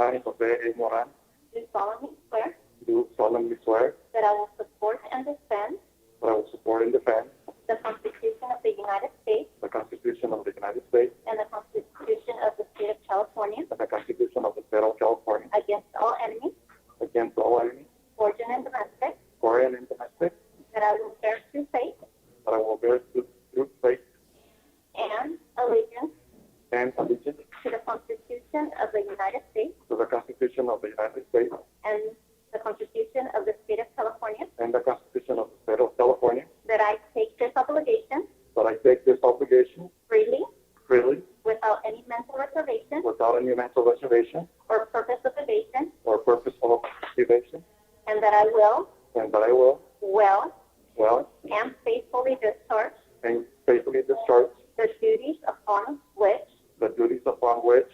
J. Moran, do solemnly swear do solemnly swear that I will support and defend that I will support and defend the Constitution of the United States the Constitution of the United States and the Constitution of the State of California and the Constitution of the State of California against all enemies, against all enemies, foreign and domestic, foreign and domestic, that I will bear true faith that I will bear true true faith and allegiance and allegiance to the Constitution of the United States to the Constitution of the United States and the Constitution of the State of California, and the Constitution of the State of California, that I take this obligation that I take this obligation freely freely without any mental reservation without any mental reservation or purpose of evasion, or purpose of evasion, and that I will and that I will well well and faithfully discharge and faithfully discharge the duties upon which the duties upon which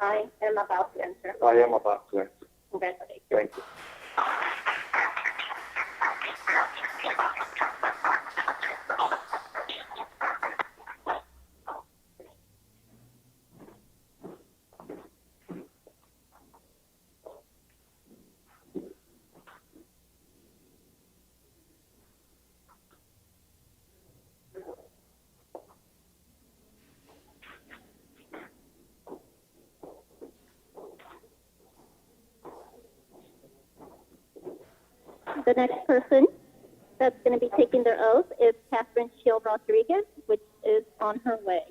I am about to enter. I am about to enter. Congratulations. Thank you. The next person that's going to be taking their oath is Catherine Shield Rodriguez, which is on her way.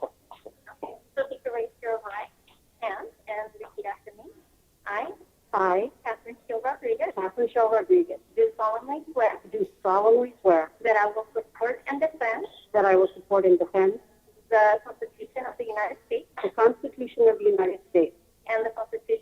So if you could raise your right hand and repeat after me. I, I, Catherine Shield Rodriguez, Catherine Shaw Rodriguez, do solemnly swear do solemnly swear that I will support and defend that I will support and defend the Constitution of the United States the Constitution of the United States and the Constitution